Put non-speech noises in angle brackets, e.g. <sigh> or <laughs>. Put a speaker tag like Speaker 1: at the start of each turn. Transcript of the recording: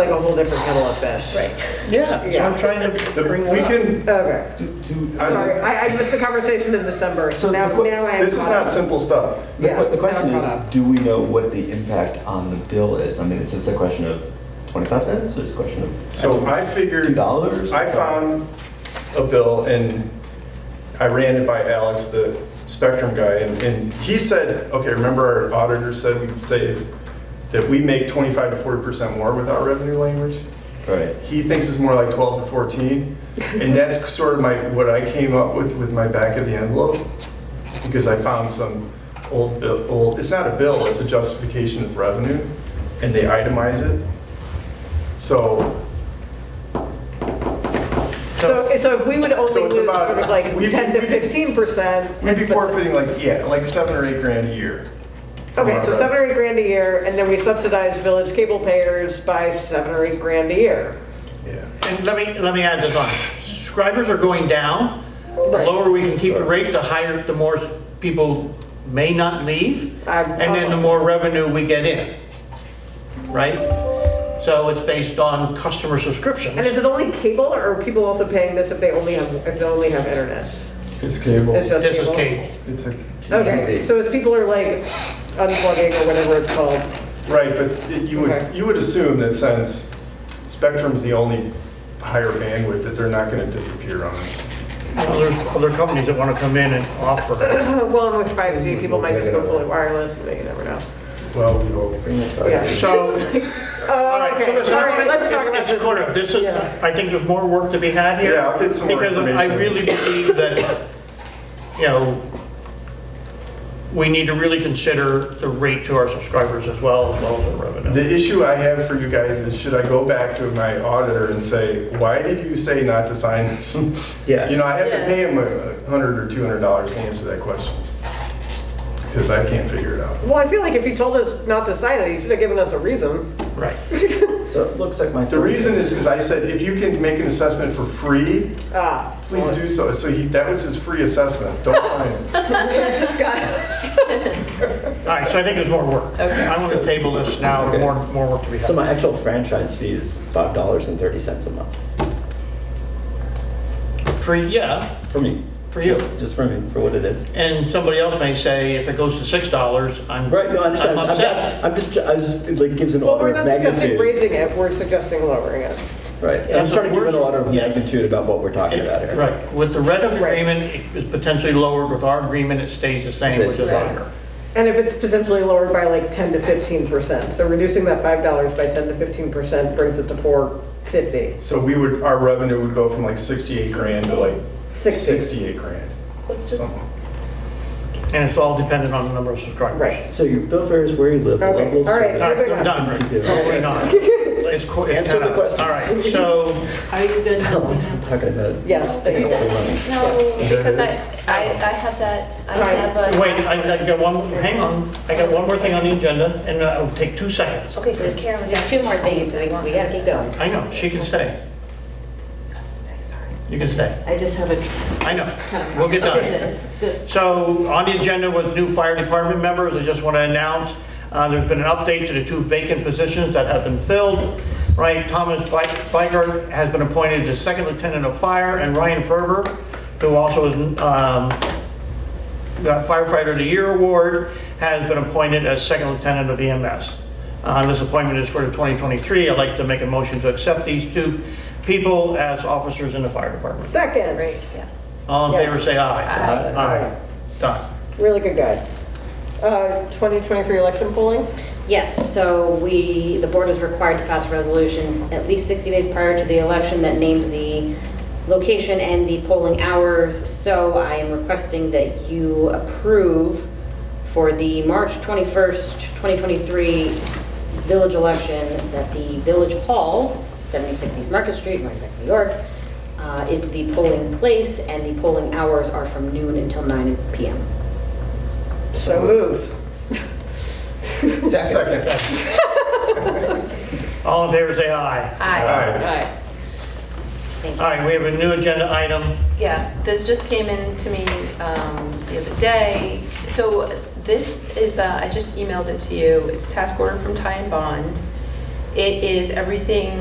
Speaker 1: like a whole different kettle of fish.
Speaker 2: Right.
Speaker 3: Yeah, so I'm trying to to bring
Speaker 4: We
Speaker 3: that up.
Speaker 4: can,
Speaker 1: Okay.
Speaker 4: to, to. I-
Speaker 1: Sorry, I, I missed the conversation in December, so
Speaker 5: So
Speaker 1: now,
Speaker 5: the que-
Speaker 1: now I am
Speaker 4: This is
Speaker 1: caught
Speaker 4: not
Speaker 1: up.
Speaker 4: simple stuff.
Speaker 5: The
Speaker 1: Yeah,
Speaker 5: que- The question
Speaker 1: now I'm
Speaker 5: is,
Speaker 1: caught up.
Speaker 5: do we know what the impact on the bill is? I mean, is this a question of 25 cents or is it a question of?
Speaker 4: So I figured.
Speaker 5: $2?
Speaker 4: I found a bill and I ran it by Alex, the Spectrum guy, and, and he said, okay, remember our auditor said we'd save, that we make 25 to 40% more with our revenue language?
Speaker 5: Right.
Speaker 4: He thinks it's more like 12 to 14. And that's sort of my, what I came up with, with my back of the envelope, because I found some old, bill- old, it's not a bill, it's a justification of revenue, and they itemize it. So
Speaker 1: So, so if we would
Speaker 4: So
Speaker 1: only
Speaker 4: it's
Speaker 1: lose sort
Speaker 4: about-
Speaker 1: of like
Speaker 4: we'd be-
Speaker 1: 10 to
Speaker 4: we'd be-
Speaker 1: 15 percent.
Speaker 4: we'd be forfeiting like, yeah, like seven or eight grand a year.
Speaker 1: Okay, so
Speaker 4: Right.
Speaker 1: seven or eight grand a year, and then we subsidize village cable payers by seven or eight grand a year.
Speaker 4: Yeah.
Speaker 3: And let me, let me add this on. Subscribers are going down. The
Speaker 1: Right.
Speaker 3: lower we can keep the rate, the higher, the more people may not leave.
Speaker 1: I'm-
Speaker 3: And then the more revenue we get in, right? So it's based on customer subscriptions.
Speaker 1: And is it only cable, or are people also paying this if they only have, if they only have internet?
Speaker 4: It's cable.
Speaker 1: It's just
Speaker 3: This is
Speaker 1: cable?
Speaker 3: cable.
Speaker 4: It's a,
Speaker 1: Okay,
Speaker 5: TV.
Speaker 1: so as people are like unplugging or whatever it's called,
Speaker 4: right, but it- you
Speaker 1: Okay.
Speaker 4: would, you would assume that since Spectrum's the only higher bandwidth, that they're not gonna disappear on us.
Speaker 3: Well, There's other companies that want to come in and offer.
Speaker 1: Uh, well, and with 5G, people might just go fully wireless, you know, you never know.
Speaker 4: Well, we hope.
Speaker 1: Yeah.
Speaker 3: So, all
Speaker 1: Oh,
Speaker 3: right, so
Speaker 1: okay,
Speaker 3: listen,
Speaker 1: all right,
Speaker 3: everybody,
Speaker 1: let's talk
Speaker 3: it's-
Speaker 1: about
Speaker 3: it's
Speaker 1: this.
Speaker 3: clear. This is,
Speaker 1: Yeah.
Speaker 3: I think there's more work to be had here.
Speaker 4: Yeah, I'll get some more
Speaker 3: Because I
Speaker 4: information.
Speaker 3: really believe that, you know, we need to really consider the rate to our subscribers as well, as well as the revenue.
Speaker 4: The issue I have for you guys is, should I go back to my auditor and say, why did you say not to sign this?
Speaker 3: Yes.
Speaker 4: You know, I have to
Speaker 2: Yeah.
Speaker 4: pay him a hundred or two hundred dollars to answer that question, because I can't figure it out.
Speaker 1: Well, I feel like if he told us not to sign it, he should have given us a reason.
Speaker 3: Right.
Speaker 5: So it looks like my.
Speaker 4: The reason is because I said, if you can make an assessment for free,
Speaker 1: Ah,
Speaker 4: please do so. So he, that was his free assessment, don't sign it.
Speaker 3: All right, so I think there's more work. I want to table this now,
Speaker 5: Okay.
Speaker 3: more, more work to be
Speaker 5: So
Speaker 3: had.
Speaker 5: my actual franchise fee is $5.30 a month
Speaker 3: For, yeah,
Speaker 5: for me,
Speaker 3: for you.
Speaker 5: just for me, for what it is.
Speaker 3: And somebody else may say, if it goes to six dollars, I'm,
Speaker 5: Right, no, I understand.
Speaker 3: I'm
Speaker 5: I'm not-
Speaker 3: upset.
Speaker 5: I'm just, I just, it like gives an
Speaker 1: Well,
Speaker 5: order
Speaker 1: we're
Speaker 5: of
Speaker 1: not suggesting
Speaker 5: magnitude.
Speaker 1: raising it, we're suggesting lowering it.
Speaker 5: Right, I'm
Speaker 3: That's
Speaker 5: just trying to give
Speaker 3: what
Speaker 5: an
Speaker 3: we're-
Speaker 5: order of magnitude about what we're talking about here.
Speaker 3: Right, with the red
Speaker 1: Right.
Speaker 3: agreement, it is potentially lowered, with our agreement, it stays the same, which
Speaker 5: Stays
Speaker 3: is
Speaker 5: the same.
Speaker 3: higher.
Speaker 1: And if it's potentially lowered by like 10 to 15%, so reducing that $5 by 10 to 15% brings it to 450,
Speaker 4: So we would, our revenue would go from like sixty-eight grand to like
Speaker 1: 60.
Speaker 4: sixty-eight grand.
Speaker 2: Let's just,
Speaker 4: something.
Speaker 3: And it's all dependent on the number of subscribers.
Speaker 1: Right.
Speaker 5: So your bill varies where you live, the
Speaker 1: Okay,
Speaker 5: level of
Speaker 1: all right.
Speaker 5: service.
Speaker 3: All right, I'm done, Rick. Totally not. It's qu- it's
Speaker 5: Answer the
Speaker 3: kinda-
Speaker 5: questions.
Speaker 3: All right, so,
Speaker 2: are you good?
Speaker 5: I'm talking about.
Speaker 1: Yes, I think that's-
Speaker 2: No, because I, I, I have that, I have a.
Speaker 3: wait, I I got one, hang on, I got one more thing on the agenda, and uh, it'll take two seconds.
Speaker 6: Okay, because Karen was, two more things, and we want, we gotta keep going.
Speaker 3: I know, she can stay,
Speaker 6: I'm sorry.
Speaker 3: you can stay.
Speaker 6: I just have <laughs> a.
Speaker 3: I know, we'll get done. So on the agenda with new fire department members, I just want to announce, uh, there's been an update to the two vacant positions that have been filled. Right, Thomas Bi- Biker has been appointed as second lieutenant of fire, and Ryan Ferber, who also is um, got firefighter of the year award, has been appointed as second lieutenant of EMS. Uh, This appointment is for 2023. I'd like to make a motion to accept these two people as officers in the fire department.
Speaker 1: Second,
Speaker 6: Great, yes.
Speaker 3: All in
Speaker 1: Yeah.
Speaker 3: favor, say aye.
Speaker 5: Aye.
Speaker 3: Done.
Speaker 1: really good guys. Uh, 2023 election polling?
Speaker 6: Yes, so we, the board is required to pass a resolution at least 60 days prior to the election that names the location and the polling hours. So I am requesting that you approve for the March 21st, 2023 village election that the Village Hall, 76 East Market Street, Rhinebeck, New York, uh, is the polling place and the polling hours are from noon until 9 PM.
Speaker 1: So moved.
Speaker 4: Second.
Speaker 3: All in favor, say aye.
Speaker 4: Aye.
Speaker 6: Thank you.
Speaker 3: All right, we have a new agenda item.
Speaker 2: Yeah, this just came in to me um, the other day. So this is, uh, I just emailed it to you, it's a task order from Ty and Bond. It is everything